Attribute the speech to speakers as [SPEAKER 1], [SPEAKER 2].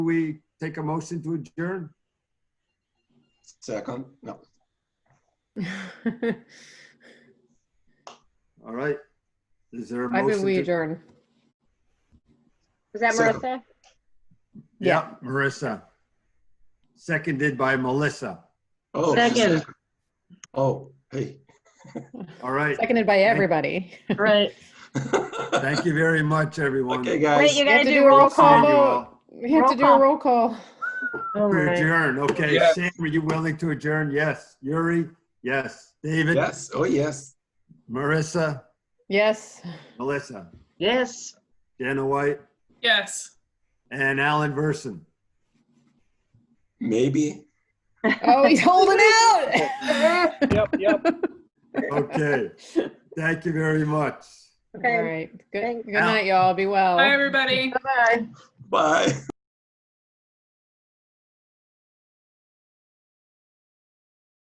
[SPEAKER 1] we take a motion to adjourn?
[SPEAKER 2] Second, no.
[SPEAKER 1] All right. Is there a
[SPEAKER 3] I
[SPEAKER 1] motion?
[SPEAKER 3] think we
[SPEAKER 1] to-
[SPEAKER 3] adjourn.
[SPEAKER 4] Was that
[SPEAKER 2] Second.
[SPEAKER 4] Marissa?
[SPEAKER 1] Yeah, Marissa. Seconded by Melissa.
[SPEAKER 2] Oh, she
[SPEAKER 4] Second.
[SPEAKER 2] said- Oh, hey.
[SPEAKER 1] All right.
[SPEAKER 3] Seconded by everybody.
[SPEAKER 4] Right.
[SPEAKER 1] Thank you very much, everyone.
[SPEAKER 2] Okay,
[SPEAKER 4] Wait,
[SPEAKER 2] guys.
[SPEAKER 4] you
[SPEAKER 3] have
[SPEAKER 4] gotta
[SPEAKER 3] to
[SPEAKER 4] do
[SPEAKER 3] do a
[SPEAKER 4] roll
[SPEAKER 3] roll
[SPEAKER 1] Thank
[SPEAKER 4] call
[SPEAKER 1] you
[SPEAKER 4] vote.
[SPEAKER 3] call.
[SPEAKER 1] all.
[SPEAKER 3] We have to do a roll call.
[SPEAKER 4] All
[SPEAKER 1] We
[SPEAKER 4] right.
[SPEAKER 1] Adjourn, okay.
[SPEAKER 2] Yeah.
[SPEAKER 1] Sam, are you willing to adjourn? Yes. Yuri? Yes. David?
[SPEAKER 2] Yes, oh, yes.
[SPEAKER 1] Marissa?
[SPEAKER 3] Yes.
[SPEAKER 1] Melissa?
[SPEAKER 4] Yes.
[SPEAKER 1] Dana White?
[SPEAKER 5] Yes.
[SPEAKER 1] And Alan Verson?
[SPEAKER 2] Maybe.
[SPEAKER 3] Oh, he's holding out.
[SPEAKER 6] Yep, yep.
[SPEAKER 1] Okay. Thank you very much.
[SPEAKER 3] All
[SPEAKER 4] Okay.
[SPEAKER 3] right. Good,
[SPEAKER 4] Thanks.
[SPEAKER 3] Oh. good night, y'all. Be well.
[SPEAKER 5] Bye, everybody.
[SPEAKER 4] Bye.
[SPEAKER 2] Bye.